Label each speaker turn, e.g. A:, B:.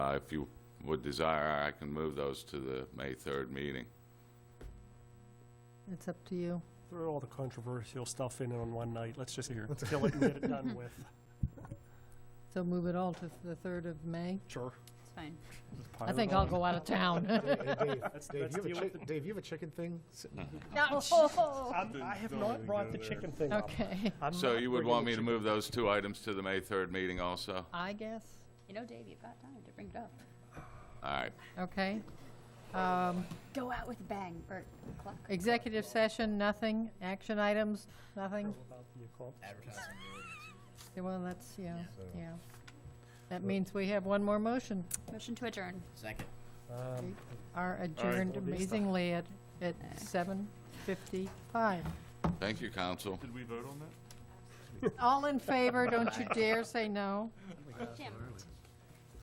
A: Uh, If you would desire, I can move those to the May 3rd meeting.
B: It's up to you.
C: Throw all the controversial stuff in on one night. Let's just kill it and get it done with.
B: So move it all to the 3rd of May.
C: Sure.
D: It's fine.
B: I think I'll go out of town.
E: Hey, hey, Dave,
C: Let's-
E: Dave,
C: let's
E: you have a
C: deal with
E: chick- Dave, you have a chicken thing? S-
B: Oh.
C: I'm- I have not brought the chicken thing up.
B: Okay,
C: I'm
A: So
C: not
A: you would
C: bringing
A: want
C: the
A: me to
C: chicken-
A: move those two items to the May 3rd meeting also?
B: I guess,
D: You know, Dave, you've got time to bring it up.
A: All right.
B: okay. Um,
D: Go out with a bang, Bert. Clock.
B: Executive session, nothing. Action items, nothing.
C: About the club.
B: Yeah, Well, that's, yeah, yeah. That means we have one more motion.
D: Motion to adjourn.
F: Second.
C: Um,
B: Are adjourned
C: Well, these-
B: amazingly at, at 7:55.
A: Thank you, counsel.
G: Did we vote on that?
B: All in favor, don't you dare say no.
D: Jim.